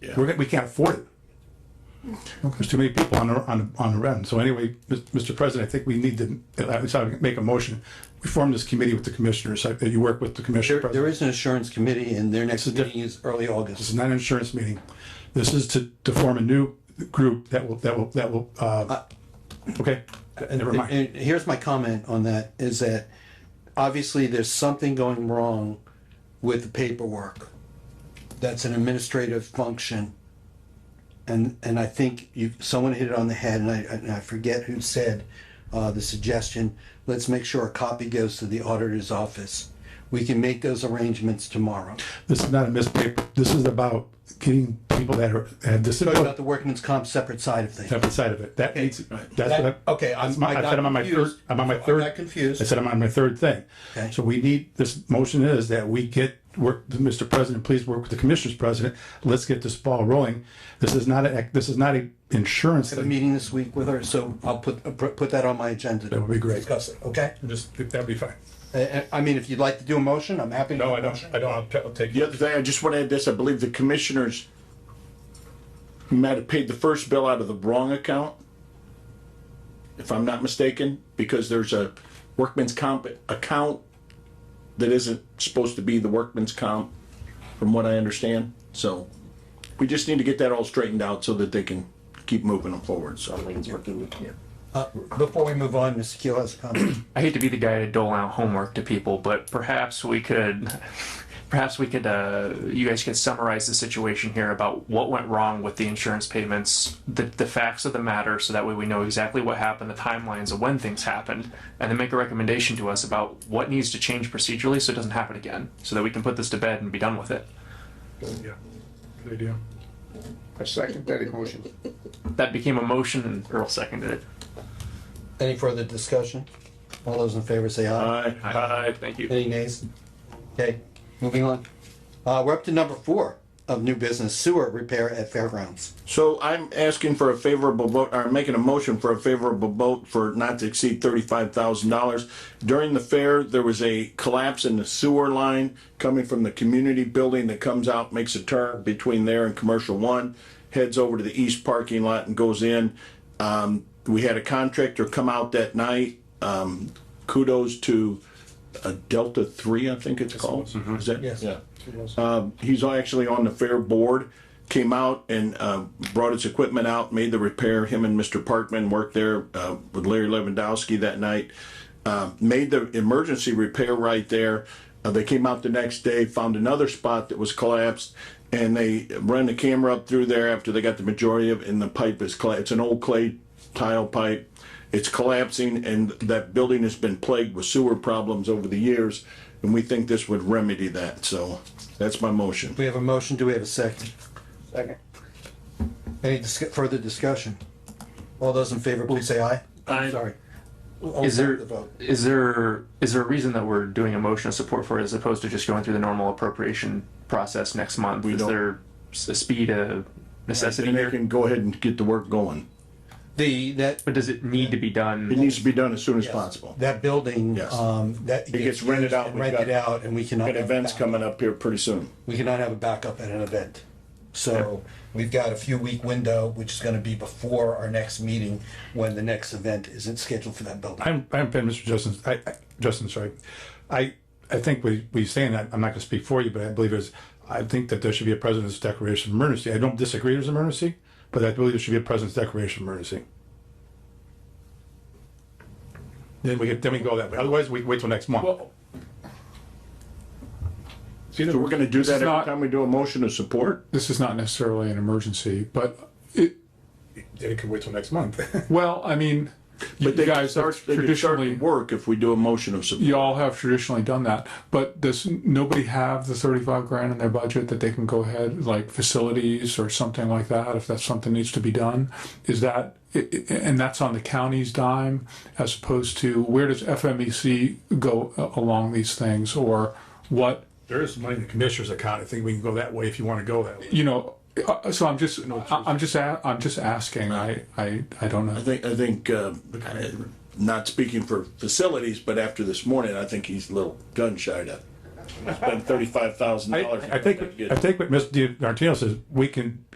Yeah. We're, we can't afford it. There's too many people on the, on, on the run. So anyway, Mis- Mr. President, I think we need to, at least I would make a motion. We form this committee with the commissioners, uh, you work with the commissioner. There, there president. is an insurance committee and their next meeting is early This August. is not an insurance meeting. This is to, to form a new group that will, that will, that will, uh, okay, never And- mind. And here's my comment on that, is that obviously there's something going wrong with the paperwork. That's an administrative function. And, and I think you, someone hit it on the head, and I, and I forget who said, uh, the suggestion, let's make sure a copy goes to the auditor's office. We can make those arrangements tomorrow. This is not a mispaper. This is about getting people that are, have Talk about disabilities, the workman's comp separate side of things. have the side of it. That needs, that's what That- I. okay, I'm- that's my- I I got said I'm on my third, confused. I'm on my I third. got confused. I said I'm on my third thing. Okay. So we need, this motion is that we get, work, Mr. President, please work with the commissioners, president. Let's get this ball rolling. This is not a, this is not a insurance a thing. meeting this week with her, so I'll put, uh, pr- put that on my agenda. That would be great. Discuss it, okay? Just, that'd be fine. Uh, uh, I mean, if you'd like to do a motion, I'm happy to. do a motion. I don't, I'll take. The other thing, I just want to add this, I believe the commissioners might have paid the first bill out of the wrong account, if I'm not mistaken, because there's a workman's comp account that isn't supposed to be the workman's comp, from what I understand. So we just need to get that all straightened out so that they can keep moving them forward, so. Uh, Before we move on, Mr. Keel has a comment. I hate to be the guy to dole out homework to people, but perhaps we could, perhaps we could, uh, you guys could summarize the situation here about what went wrong with the insurance payments, the, the facts of the matter, so that way we know exactly what happened, the timelines of when things happened, and then make a recommendation to us about what needs to change procedurally so it doesn't happen again, so that we can put this to bed and be done with it. I second that motion. That became a motion and Earl seconded it. Any further discussion? All those in favor say aye. Aye. Aye, thank you. Any nays? Okay, moving on. Uh, we're up to number four of new business sewer repair at fairgrounds. So I'm asking for a favorable vote, or making a motion for a favorable vote for not to exceed thirty-five thousand dollars. During the fair, there was a collapse in the sewer line coming from the community building that comes out, makes a turn between there and Commercial One, heads over to the east parking lot and goes in. Um, we had a contractor come out that night. Um, kudos to uh, Delta Three, I think it's called. Is that? Yes. Yeah. Um, he's actually on the fair board, came out and uh, brought his equipment out, made the repair. Him and Mr. Parkman worked there uh, with Larry Lewandowski that night. Uh, made the emergency repair right there. Uh, they came out the next day, found another spot that was collapsed, and they ran the camera up through there after they got the majority of. And the pipe is clay. It's an old clay tile pipe. It's collapsing, and that building has been plagued with sewer problems over the years, and we think this would remedy that, so that's my motion. We have a motion, do we have a second? Second. Any discu- further discussion? All those in favor, please say aye. Aye. Sorry. Is there, The vote. is there, is there a reason that we're doing a motion of support for it as opposed to just going through the normal appropriation process next month? Is don't- there s- a speed, a necessity And they here? can go ahead and get the work going. The, that, But does it need to be It done? needs to be done as soon as possible. That building, Yes. um, that. It gets rented out. We've Rented got- out and we cannot. Got have events back- coming up here pretty soon. We cannot have a backup at an event. So we've got a few week window, which is gonna be before our next meeting, when the next event isn't scheduled for that building. I'm, I'm, Ben, Mr. Justin, I, I- Justin, sorry. I, I think we, we saying that, I'm not gonna speak for you, but I believe is, I think that there should be a president's declaration of emergency. I don't disagree there's an emergency, but I believe there should be a president's declaration of emergency. Then we, could- then we go that way. Otherwise, we wait till next month. So we're gonna do that every not- time we do a motion of support? this is not necessarily an emergency, but it, Then it could wait till next month. well, I mean, you But they can guys start, have they can start traditionally, work if we do a motion of support. you all have traditionally done that, but does nobody have the thirty-five grand in their budget that they can go ahead, like facilities or something like that, if that's something needs to be done? Is that, i- i- and that's on the county's dime as opposed to where does FMEC go a- along these things or what? There is money in the commissioner's account. I think we can go that way if you wanna go that way. You know, uh, so I'm just, I- I'm just, a- I'm just asking, I, I, I don't know. I think, I think, uh, I- not speaking for facilities, but after this morning, I think he's a little gun shy to spend thirty-five thousand I, dollars. I think, I think what Ms. Di Martino says, we can